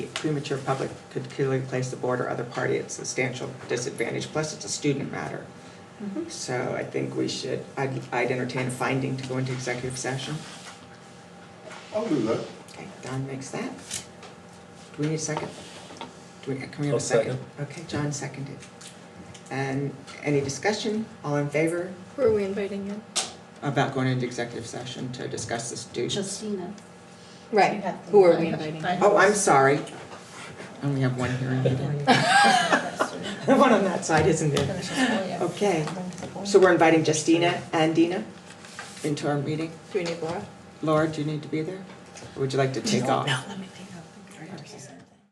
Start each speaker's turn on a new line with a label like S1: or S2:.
S1: Premature public could clearly place the board or other party at substantial disadvantage, plus it's a student matter. So I think we should, I'd, I'd entertain a finding to go into executive session.
S2: I'll do that.
S1: Okay, Don makes that. Do we need a second? Do we, can we have
S3: I'll
S1: a second?
S3: second.
S1: Okay, John seconded. And any discussion, all in favor
S4: Who are we inviting in?
S1: about going into executive session to discuss the students?
S5: Justina.
S4: Right,
S5: You have to
S4: who are we
S5: invite-
S4: inviting?
S5: invite-
S1: Oh, I'm sorry. I Only have one hearing needed. The one on that side, isn't there?
S5: Finish this early.
S1: Okay, so we're inviting Justina and Dina into our meeting.
S4: Do we need Laura?
S1: Laura, do you need to be there? Or would you like to take off?
S5: let me think.